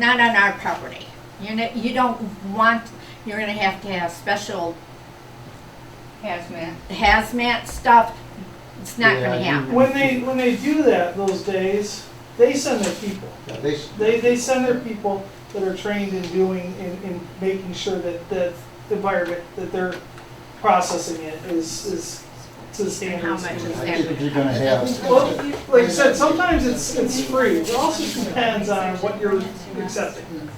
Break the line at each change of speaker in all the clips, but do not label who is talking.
not on our property. You're not, you don't want, you're gonna have to have special
hazmat.
hazmat stuff. It's not
Yeah,
gonna
you-
happen.
When they, when they do that those days, they send their people.
Yeah, they, s-
They, they send their people that are trained in doing, in, in making sure that, that the environment, that they're processing it is, is to the
And how
standards.
much is
I
that?
think you're gonna have,
Well, like I said, sometimes it's, it's free, it also depends on what you're accepting.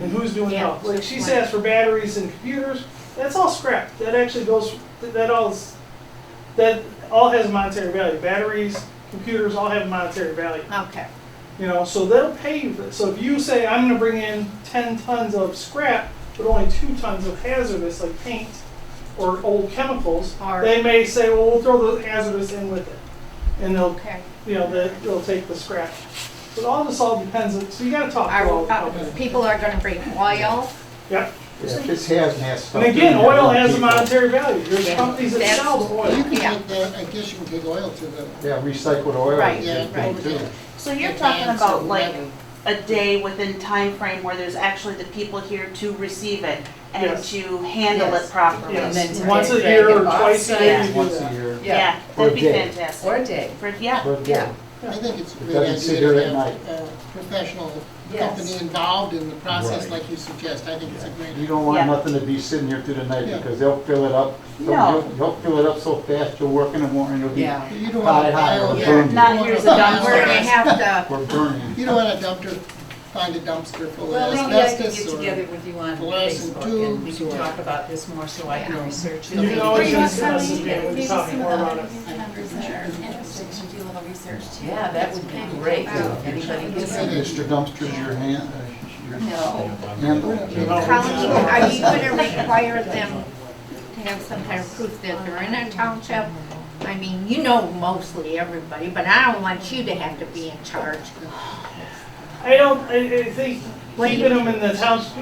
And who's doing it all. Like she says for batteries and computers, that's all scrap, that actually goes, that all is, that all has monetary value. Batteries, computers, all have monetary value,
Okay,
you know, so they'll pay you for it. So if you say, I'm gonna bring in ten tons of scrap, but only two tons of hazardous, like paint or old chemicals,
Or-
they may say, well, we'll throw the hazardous in with it. And they'll
okay.
you know, that they'll take the scratch. But all this all depends, on- so you gotta talk to
Our,
all the
uh,
companies.
people are gonna bring oil.
Yep,
if it's hazmat stuff.
and again,
you know,
oil has a
people-
monetary value, there's companies that
That's-
sell the
You
oil.
can take that, I guess you can take oil to the,
Yeah, recycled oil.
Right,
is a
yeah,
big
over
deal.
there.
So you're talking about like
Advance
a day within time frame where there's actually the people here to receive it and
Yes.
to handle it
Yes.
properly?
And then
Yes,
to
once a
take
year or
it off
twice a year
site.
you do
Once a
that.
year.
Yeah,
Or a
that'd be
day.
fantastic.
Or a day.
For, yeah,
But, yeah,
or whatever. I think it's a
It
great
doesn't sit
idea
there
to
at
have a professional
Yes.
company involved in the process
Right.
like you suggest, I think it's a great
You
idea.
don't want
Yeah.
nothing to be sitting here through the night
Yeah.
because they'll fill it up. They'll-
No.
they'll- They'll fill it up so fast you're working in the morning, it'll be,
Yeah.
You don't want
High,
a
high,
pile of-
yeah.
you don't
Not
want
here's
a
the
pile
dumpster.
We're gonna
of-
have to,
we're burning.
You don't want a dumpster, find a dumpster full
Well,
of
maybe I could
asbestos
get
or.
together with you on
glass and
Facebook and we
tubes
can
or-
talk about this more so I can research it.
You can always
Yeah,
just message me, we'll be talking more about it.
members that are interested can do a little research too.
that would be great.
Yeah.
Anybody
Hey,
who's.
Mr. Dumpster's your hand, uh, your
No.
handler?
You know,
Colleen, are you gonna require them to have some kind of proof that they're in a township? I mean, you know mostly everybody, but I don't want you to have to be in charge.
I don't, I, I think
What do
keeping
you-
them in the township,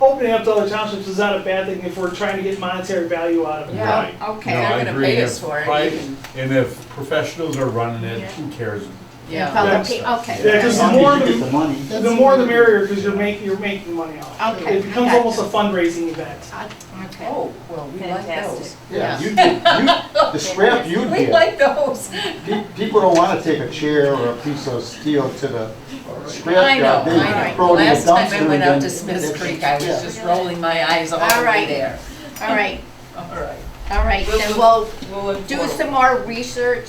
opening up to other townships is not a bad thing if we're trying to get monetary value out of it.
Yeah,
No,
okay,
Oh, I
they're gonna
agree.
pay
If
us for
pri-
it even.
And if professionals are running it, who cares?
If
Yeah.
other pe-
Yeah,
Okay,
because
As
the
long as
more
you
the-
get the money.
The more the merrier, because you're making, you're making money off it.
Okay,
It becomes
I got
almost a
you.
fundraising event.
I- okay.
Oh, well, we like those.
fantastic.
Yeah, you, you, the scrap you
We
get,
like those.
pe- people don't wanna take a chair or a piece of steel to the
I
scrap
know,
yard. They
I know.
throw it in the
Last time
dumpster
I went
and
out to
then-
Smith's
that's-
Creek, I
yeah.
was just rolling my eyes all
All
the way
right.
there.
All right,
All right.
all right,
We'll-
then we'll
We'll
do some more research.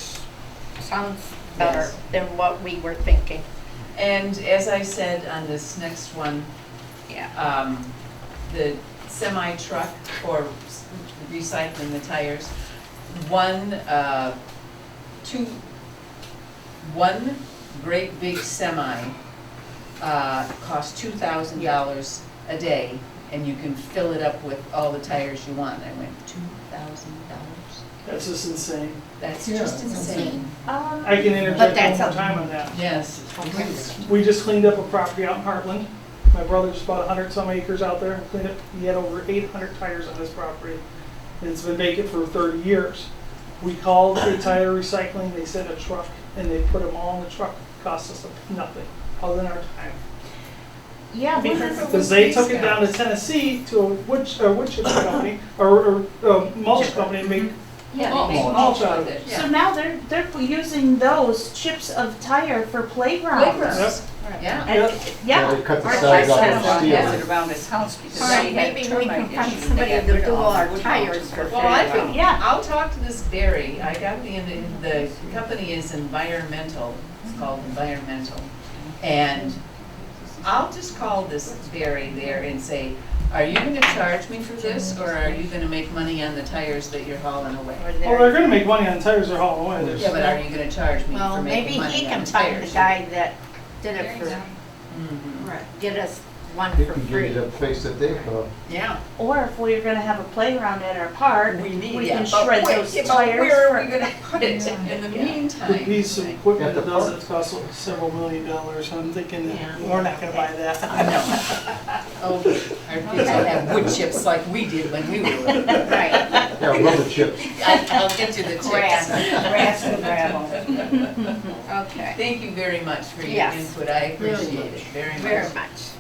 Sounds better
Yes.
than what we were thinking.
And as I said on this next one,
Yeah.
um, the semi truck for s- recycling the tires, one, uh, two, one great big semi, uh, costs two thousand dollars a day, and you can fill it up with all the tires you want. I went, two thousand dollars?
That's just insane.
That's
Yeah,
just
it's
insane.
insane.
Um,
I can
But
interject
that's
one
a-
more time on that.
Yes.
Please.
We just cleaned up a property out in Heartland. My brother just bought a hundred some acres out there and cleaned up, he had over eight hundred tires on his property. And it's been vacant for thirty years. We called the tire recycling, they sent a truck and they put them all in the truck. Cost us nothing, other than our time.
yeah, because.
Because they took it down to Tennessee to a wood, a wood chipper company, or, or a mulch company and make
Yeah,
Oh,
they make
oh,
mulch
oh.
with it, yeah.
So now they're, they're using those chips of tire for playgrounds.
Playgrounds, yeah.
And-
Yeah,
Yeah,
they cut the
Our
sides off
son
with
has
steel.
it around his house because
All right,
they had
maybe we can
termite
find
issues.
somebody
They got
to
rid
do
of
all our
the
tires for
Well, I
free.
think,
Yeah.
yeah, I'll talk to this dairy. I got the, the company is environmental, it's called environmental. And I'll just call this dairy there and say, are you gonna charge me for this or are you gonna make money on the tires that you're hauling away?
Or
Well,
there-
they're gonna make money on tires they're hauling away. There's-
Yeah, but are you gonna charge me
Well,
for
maybe
making
he
money on
can
the
find the
tires?
guy that did it for,
Mhm.
Right.
did us one
They
for
can give you
free.
the place that they go.
Yeah.
Or if we're gonna have a playground at our park,
We
we
need it,
can
but
shred
wait,
those
yeah,
tires.
but Where are we
for-
gonna put it in the
Would
meantime?
need some
At
equipment
the
that doesn't cost several million dollars, so I'm thinking that
Yeah.
we're not gonna buy that.
No. Oh, our kids will have wood chips like we did when we were little.
Right,
Yeah, rubber chips.
I- I'll get you the tips.
Grass, grass and gravel.
okay,
Thank you very much for your
Yes.
input. I
Very
appreciate it
much.
very much.
very much.